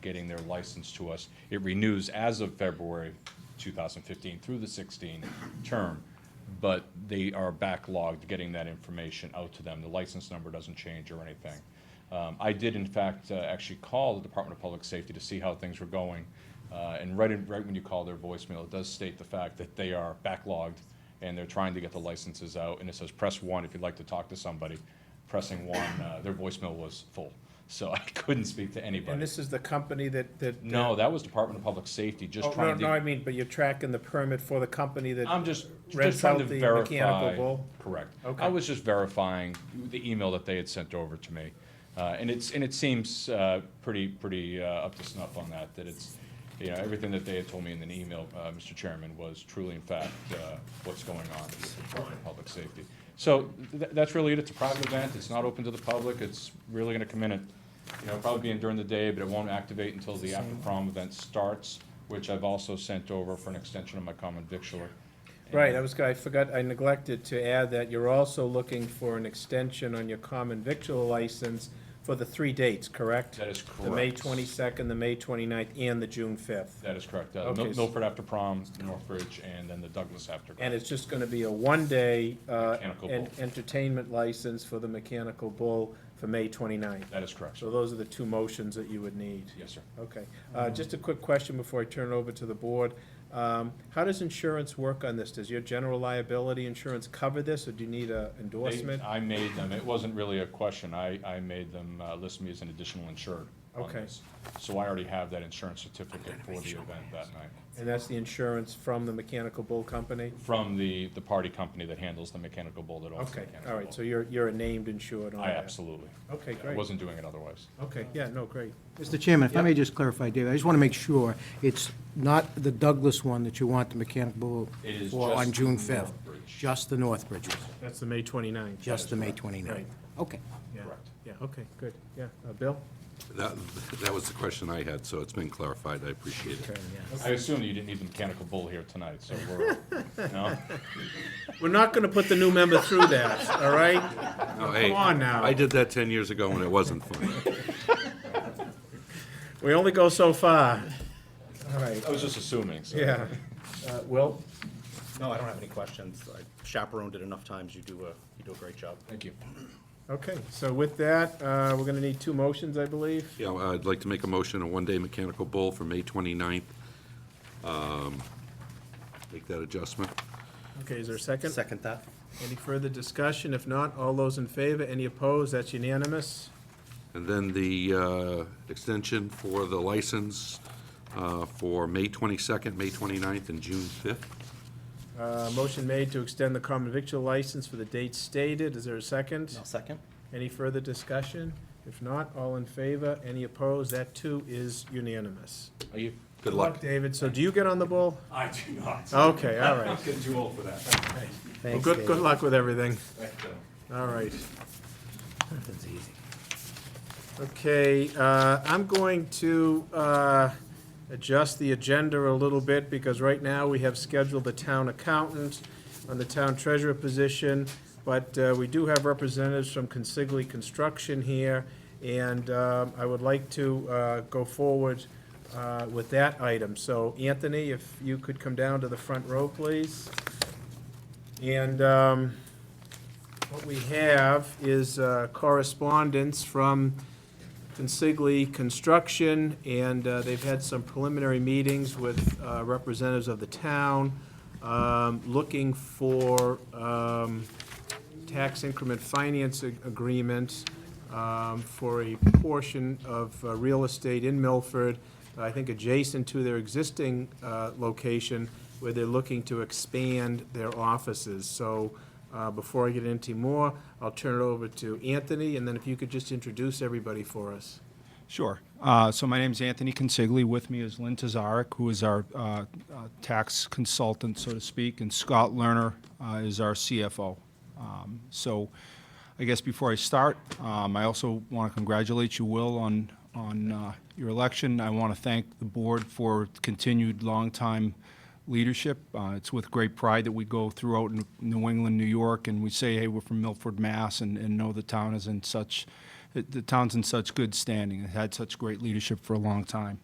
getting their license to us. It renews as of February 2015 through the 16 term, but they are backlogged getting that information out to them. The license number doesn't change or anything. Um, I did in fact uh, actually call the Department of Public Safety to see how things were going. Uh, And right, in- right when you call their voicemail, it does state the fact that they are backlogged and they're trying to get the licenses out. And it says, press one if you'd like to talk to somebody. Pressing one, uh, their voicemail was full. So I couldn't speak to anybody. And this is the company that, that? No, that was Department of Public Safety, just Oh, no, trying no, I to, mean, but you're tracking the permit for the company that? I'm just, just rents trying out to the verify. mechanical bull? Correct. I Okay. was just verifying the email that they had sent over to me. Uh, and it's, and it seems, uh, pretty, pretty, uh, up to snuff on that, that it's, you know, everything that they had told me in an email, uh, Mr. Chairman, was truly in fact, uh, what's going on with the Department of Public Safety. So th- that's really it. It's a private event. It's not open to the public. It's really gonna come in at you know, probably being during the day, but it won't activate until the after prom event starts, which I've also sent over for an extension of my common victualler. Right, I was, I forgot, I neglected to add that you're also looking for an extension on your common victual license for the three dates, correct? That is The May correct. 22nd, the May 29th, and the June 5th. That is correct. Uh, Mil- Okay. Milford after prom, Northbridge, and then the Douglas after. prom. And it's just going to be a one-day uh, Mechanical en- bull. entertainment license for the Mechanical Bull for May 29th. That is correct. So those are the two motions that you would need. Yes, sir. Okay, Uh, just a quick question before I turn it over to the board. Um, How does insurance work on this? Does your general liability insurance cover this, or do you need an They- endorsement? I made them, it wasn't really a question. I, I made them uh, list me as an additional insured on Okay. this. So I already have that insurance certificate for the event that night And that's the insurance from the Mechanical Bull Company? from the, the party company that handles the mechanical bull that owns the Okay, mechanical all right, so bull. you're, you're a named insured on I that? absolutely. Okay, I great. wasn't doing it otherwise. Okay, yeah, no, great. Mr. Chairman, if I may just clarify, David, I just want to make sure it's not the Douglas one that you want the mechanical It is for just on June the 5th. Northbridge. Just the Northbridge one, That's the May 29th. just the May 29th. Right. Okay. Yeah. Correct. Yeah, okay, good, yeah. Uh, Bill? That, that was the question I had, so it's been clarified, I appreciate it. I assume you didn't need the mechanical bull here tonight, so we're, no? We're not going to put the new member through that, all right? No, Oh, hey, Come on now. I did that 10 years ago and it wasn't funny. We only go so far. All right, I was just assuming, so. yeah. Uh, Will? No, I don't have any questions. I chaperoned it enough times. You do a, you do a great job. Thank you. Okay, so with that, uh, we're going to need two motions, I believe. Yeah, well, I'd like to make a motion, a one-day mechanical bull for May 29th. Um, Make that adjustment. Okay, is there a second? Second that. Any further discussion? If not, all those in favor, any opposed? That's unanimous. And then the uh, extension for the license uh, for May 22nd, May 29th, and June 5th. Uh, Motion made to extend the common victual license for the date stated. Is there a second? No, second? Any further discussion? If not, all in favor, any opposed? That too is unanimous. Are you? Good luck. David, so do you get on the ball? I do not. Okay, all right. Getting too old for that. Well, good, good luck with everything. All right. Okay, uh, I'm going to uh, adjust the agenda a little bit, because right now we have scheduled the town accountant on the town treasurer position, but uh, we do have representatives from Consigli Construction here, and um, I would like to uh, go forward uh, with that item. So Anthony, if you could come down to the front row, please. And um, what we have is uh, correspondence from Consigli Construction, and uh, they've had some preliminary meetings with uh, representatives of the town, um, looking for um, tax increment finance ag- agreement um, for a portion of uh, real estate in Milford, I think adjacent to their existing uh, location, where they're looking to expand their offices. So uh, before I get into more, I'll turn it over to Anthony, and then if you could just introduce everybody for us. Sure. Uh, So my name's Anthony Consigli. With me is Lynn Tazarek, who is our uh, uh, tax consultant, so to speak, and Scott Lerner uh, is our CFO. Um, So I guess before I start, um, I also want to congratulate you, Will, on, on uh, your election. I want to thank the board for continued longtime leadership. Uh, It's with great pride that we go throughout N- New England, New York, and we say, hey, we're from Milford, Mass, and and know the town is in such it- the town's in such good standing, it had such great leadership for a long time.